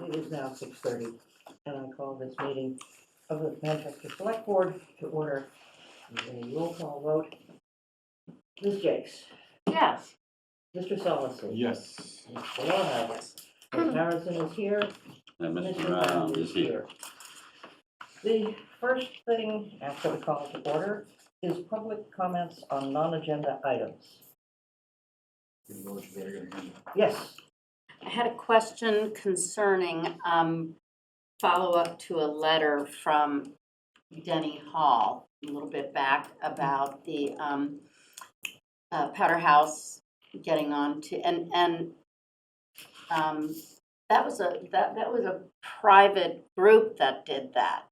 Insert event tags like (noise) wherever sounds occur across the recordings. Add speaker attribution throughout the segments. Speaker 1: It is now six thirty, and I call this meeting of the Manchester Select Board to order. With A roll call vote. Ms. Jakes,
Speaker 2: Yes.
Speaker 1: Mr. Solomon,
Speaker 3: Yes.
Speaker 1: Ms. Solana, Ms. Harrison is here,
Speaker 4: And
Speaker 1: Mr.
Speaker 4: Mr. Round Uh, is here.
Speaker 1: The first thing after the call to order is public comments on non-agenda items. Yes,
Speaker 2: I had a question concerning um, follow-up to a letter from Denny Hall a little bit back about the um, uh, Powder House getting on to, and, and um, that was a, that, that was a private group that did that.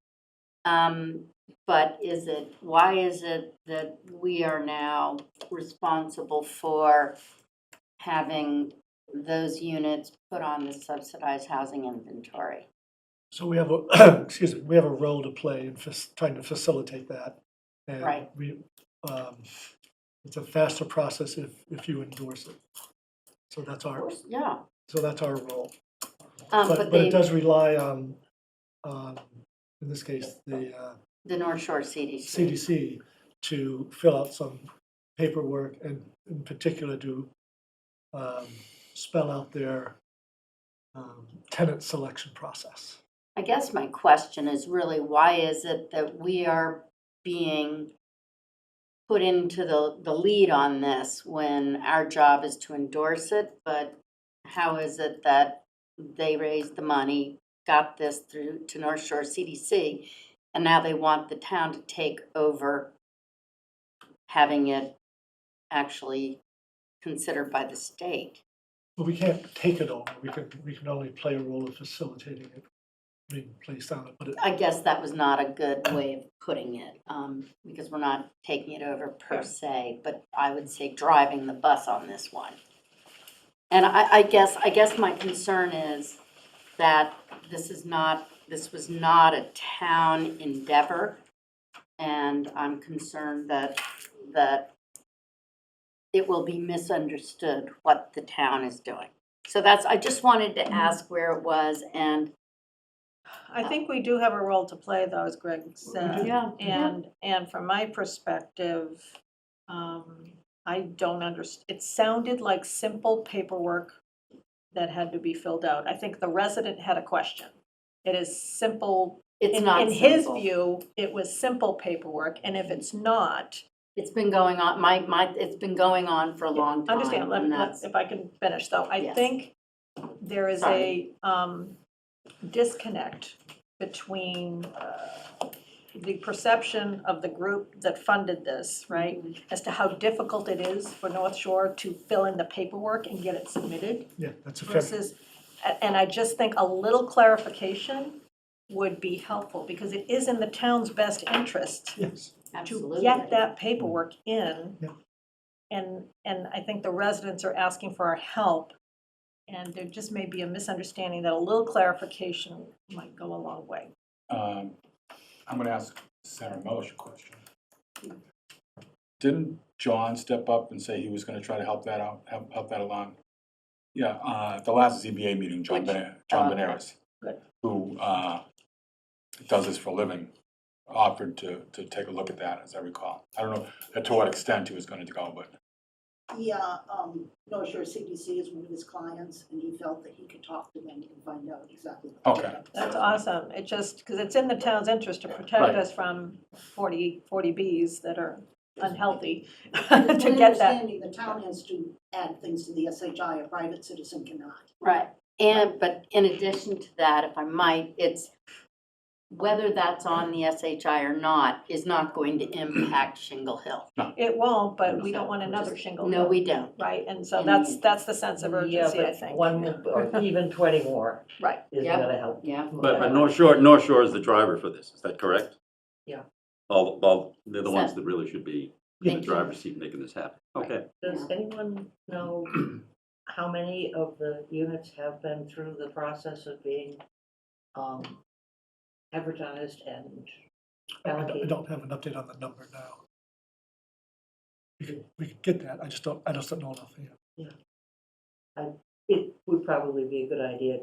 Speaker 2: Um, But is it, why is it that we are now responsible for having those units put on the subsidized housing inventory.
Speaker 5: So we have a, (clears throat) excuse me, we have a role to play in fas- trying to facilitate that. and
Speaker 2: Right.
Speaker 5: We, um, it's a faster process if, if you endorse it. So that's our,
Speaker 2: Yeah,
Speaker 5: so that's our role.
Speaker 2: um,
Speaker 5: But,
Speaker 2: but
Speaker 5: but it
Speaker 2: the,
Speaker 5: does rely on, um, in this case, the uh,
Speaker 2: the North Shore CDC.
Speaker 5: CDC to fill out some paperwork and in particular to um, spell out their um, tenant selection process.
Speaker 2: I guess my question is really, why is it that we are being put into the, the lead on this when our job is to endorse it? But how is it that they raised the money, got this through to North Shore CDC, and now they want the town to take over having it actually considered by the state?
Speaker 5: But we can't take it over, we can, we can only play a role in facilitating it being placed on it, but it,
Speaker 2: I guess that was not a good way of putting it, um, because we're not taking it over per se, but I would say driving the bus on this one. And I, I guess, I guess my concern is that this is not, this was not a town endeavor. And I'm concerned that, that it will be misunderstood what the town is doing. So that's, I just wanted to ask where it was and,
Speaker 6: I think we do have a role to play though, as Greg said.
Speaker 2: yeah.
Speaker 6: And, and from my perspective, um, I don't underst, it sounded like simple paperwork that had to be filled out. I think the resident had a question. It is simple,
Speaker 2: It's
Speaker 6: in,
Speaker 2: not
Speaker 6: in his
Speaker 2: simple.
Speaker 6: view, it was simple paperwork, and if it's not,
Speaker 2: It's been going on, my, my, it's been going on for a long time.
Speaker 6: Understand, let,
Speaker 2: and
Speaker 6: let-
Speaker 2: that's-
Speaker 6: if I can finish though, I
Speaker 2: Yes.
Speaker 6: think there is
Speaker 2: Sorry.
Speaker 6: a, um, disconnect between, uh, the perception of the group that funded this, right?
Speaker 2: Mm-hmm.
Speaker 6: As to how difficult it is for North Shore to fill in the paperwork and get it submitted
Speaker 5: yeah, that's a fair,
Speaker 6: versus, a- and I just think a little clarification would be helpful, because it is in the town's best interest
Speaker 5: yes.
Speaker 6: to
Speaker 2: Absolutely.
Speaker 6: get that paperwork in.
Speaker 5: Yeah.
Speaker 6: And, and I think the residents are asking for our help. And there just may be a misunderstanding that a little clarification might go a long way.
Speaker 3: Um, I'm gonna ask Sarah Melish a question. Didn't John step up and say he was gonna try to help that out, help, help that along? Yeah, uh, at the last ZBA meeting, John
Speaker 2: Which-
Speaker 3: Benares, John
Speaker 2: oh, okay.
Speaker 3: Benares,
Speaker 6: Good.
Speaker 3: who, uh, does this for a living, offered to, to take a look at that, as I recall. I don't know to what extent he was gonna go, but
Speaker 7: Yeah, um, North Shore CDC is one of his clients, and he felt that he could talk to them and find out exactly. what they're
Speaker 3: Okay.
Speaker 7: up to.
Speaker 6: That's awesome. It just, because it's in the town's interest to protect
Speaker 3: Right.
Speaker 6: us from 40, 40Bs that are unhealthy (laughs)
Speaker 7: It's
Speaker 6: to
Speaker 7: my
Speaker 6: get that.
Speaker 7: understanding the town has to add things to the SHI, a private citizen cannot.
Speaker 2: Right, and, but in addition to that, if I might, it's whether that's on the SHI or not is not going to impact Shingle Hill.
Speaker 6: It won't, but we don't want
Speaker 2: Just-
Speaker 6: another shingle.
Speaker 2: No,
Speaker 6: though,
Speaker 2: we don't.
Speaker 6: Right, and so that's, that's the sense of
Speaker 1: yeah,
Speaker 6: urgency, I
Speaker 1: but
Speaker 6: think.
Speaker 1: one or even twenty more
Speaker 6: Right.
Speaker 1: isn't
Speaker 2: Yeah.
Speaker 1: gonna help.
Speaker 2: Yeah.
Speaker 4: But, but North Shore, North Shore is the driver for this, is that correct?
Speaker 1: Yeah.
Speaker 4: All, all, they're the ones
Speaker 2: So-
Speaker 4: that really should be in the
Speaker 2: Thank you.
Speaker 4: driver's seat making this happen. Okay.
Speaker 1: Does anyone know how many of the units have been through the process of being um, advertised and
Speaker 5: I I don't- I
Speaker 1: allocated?
Speaker 5: don't have an update on the number now. We can, we can get that, I just don't, I just don't know enough, yeah.
Speaker 1: It would probably be a good idea